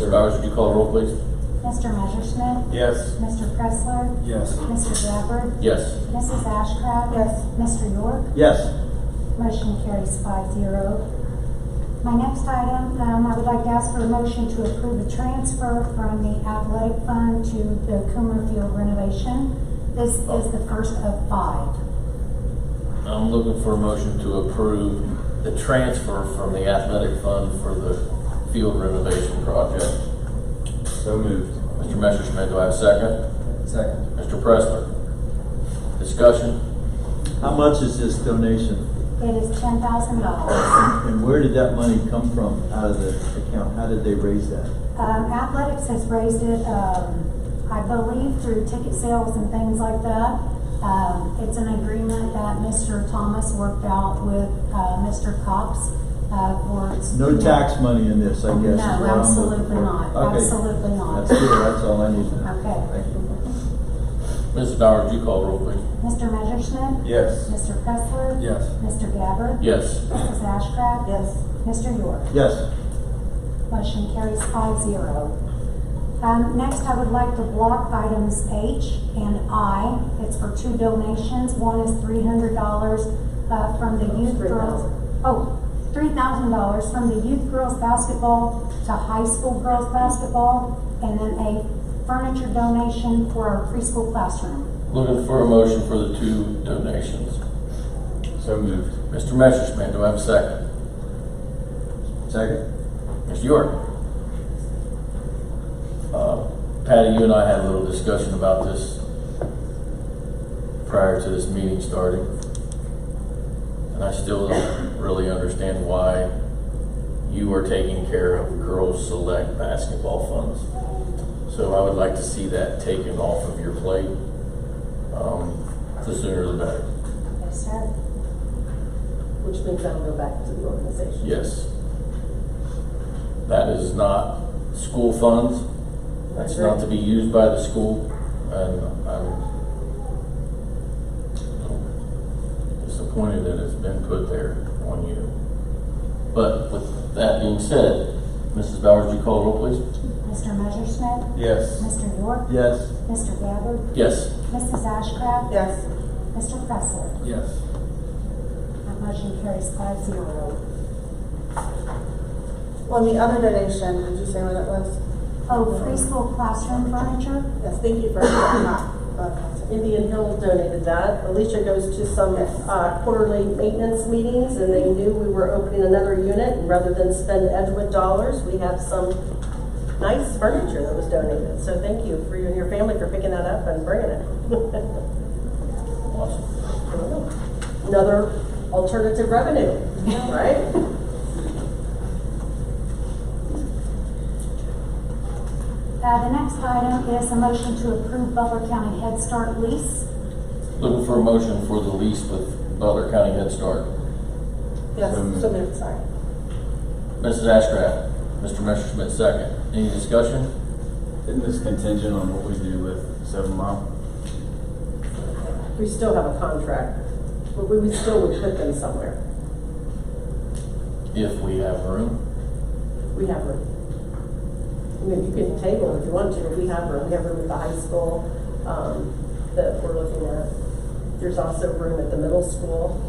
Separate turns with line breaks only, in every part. Mr. Bowers, would you call the roll, please?
Mr. Messerschmidt.
Yes.
Mr. Pressler.
Yes.
Mr. Gabbard.
Yes.
Mrs. Ashcraft. Yes. Mr. York.
Yes.
Motion carries five zero. My next item, um, I would like to ask for a motion to approve a transfer from the athletic fund to the Coomer Field renovation. This is the first of five.
I'm looking for a motion to approve the transfer from the athletic fund for the field renovation project.
So moved.
Mr. Messerschmidt, do I have a second?
Second.
Mr. Pressler? Discussion?
How much is this donation?
It is ten thousand dollars.
And where did that money come from out of the account? How did they raise that?
Um, athletics has raised it, um, I believe through ticket sales and things like that. Um, it's an agreement that Mr. Thomas worked out with, uh, Mr. Cox, uh, for.
No tax money in this, I guess. is
No,
what I'm looking
absolutely
for.
not.
Okay.
Absolutely not.
That's good, that's all I need to know.
Okay.
Thank you.
Mrs. Bowers, would you call the roll, please?
Mr. Messerschmidt.
Yes.
Mr. Pressler.
Yes.
Mr. Gabbard.
Yes.
Mrs. Ashcraft. Yes. Mr. York.
Yes,
Motion carries five zero. Um, next, I would like to block items H and I. It's for two donations. One is three hundred dollars, uh, from the youth girls. Oh, three thousand dollars from the youth girls basketball to high school girls basketball. And then a furniture donation for our preschool classroom.
Looking for a motion for the two donations.
So moved.
Mr. Messerschmidt, do I have a second?
second.
Mr. York? Uh, Patty, you and I had a little discussion about this prior to this meeting starting. And I still don't really understand why you are taking care of girls' select basketball funds. So I would like to see that taken off of your plate. Um, The sooner the better.
Yes, sir.
Which means that'll go back to the organization.
Yes. That is not school funds. That's not to be used by the school, and I'm disappointed that it's been put there on you. But with that being said, Mrs. Bowers, would you call the roll, please?
Mr. Messerschmidt.
Yes.
Mr. York.
Yes,
Mr. Gabbard.
Yes.
Mrs. Ashcraft.
Yes.
Mr. Pressler.
Yes.
That motion carries five zero.
Well,
uh,
the other donation, did you say what it was?
Oh, preschool classroom furniture?
Yes, thank you for that. Uh,
Indian Hill donated that. Alicia goes to some
Yes.
uh, quarterly maintenance meetings, and they knew we were opening another unit, and rather than spend Edgewood dollars, we have some nice furniture that was donated. So thank you for you and your family for picking that up and bringing it.
Awesome.
Another alternative revenue, right?
Uh, the next item is a motion to approve Butler County Head Start lease.
Looking for a motion for the lease with Butler County Head Start.
Yes, so moved, sorry.
Mrs. Ashcraft, Mr. Messerschmidt, second. Any discussion?
Isn't this contingent on what we do with Seven Mile?
We still have a contract, but we would still would put them somewhere.
If we have room.
We have room. I mean, you can table if you want to, but we have room, we have room at the high school, um, that we're looking at. There's also room at the middle school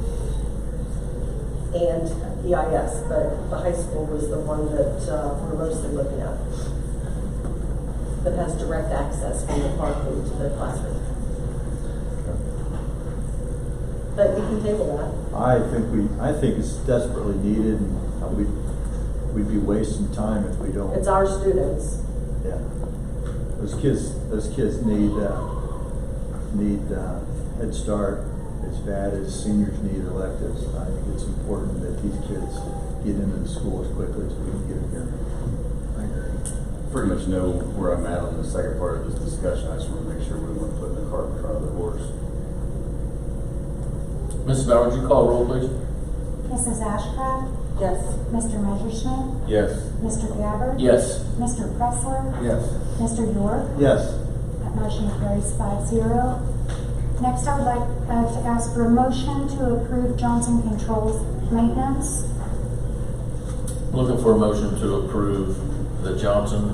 and EIS, but the high school was the one that, uh, we're mostly looking at. That has direct access from the parking to the classroom. But you can table that.
I think we, I think it's desperately needed, and we'd, we'd be wasting time if we don't.
It's our students.
Yeah. Those kids, those kids need, uh, need, uh, Head Start as bad as seniors need electives. I think it's important that these kids get into the school as quickly as we can get them here.
I Pretty much know where I'm at on the second part of this discussion. I just want to make sure we weren't putting the cart in front of the horse.
Mrs. Bowers, would you call roll, please?
Mrs. Ashcraft,
Yes.
Mr. Messerschmidt,
Yes.
Mr. Gabbard.
Yes.
Mr. Pressler,
Yes.
Mr. York.
Yes,
That motion carries five zero. Next, I would like, uh, to ask for a motion to approve Johnson Controls maintenance.
Looking for a motion to approve the Johnson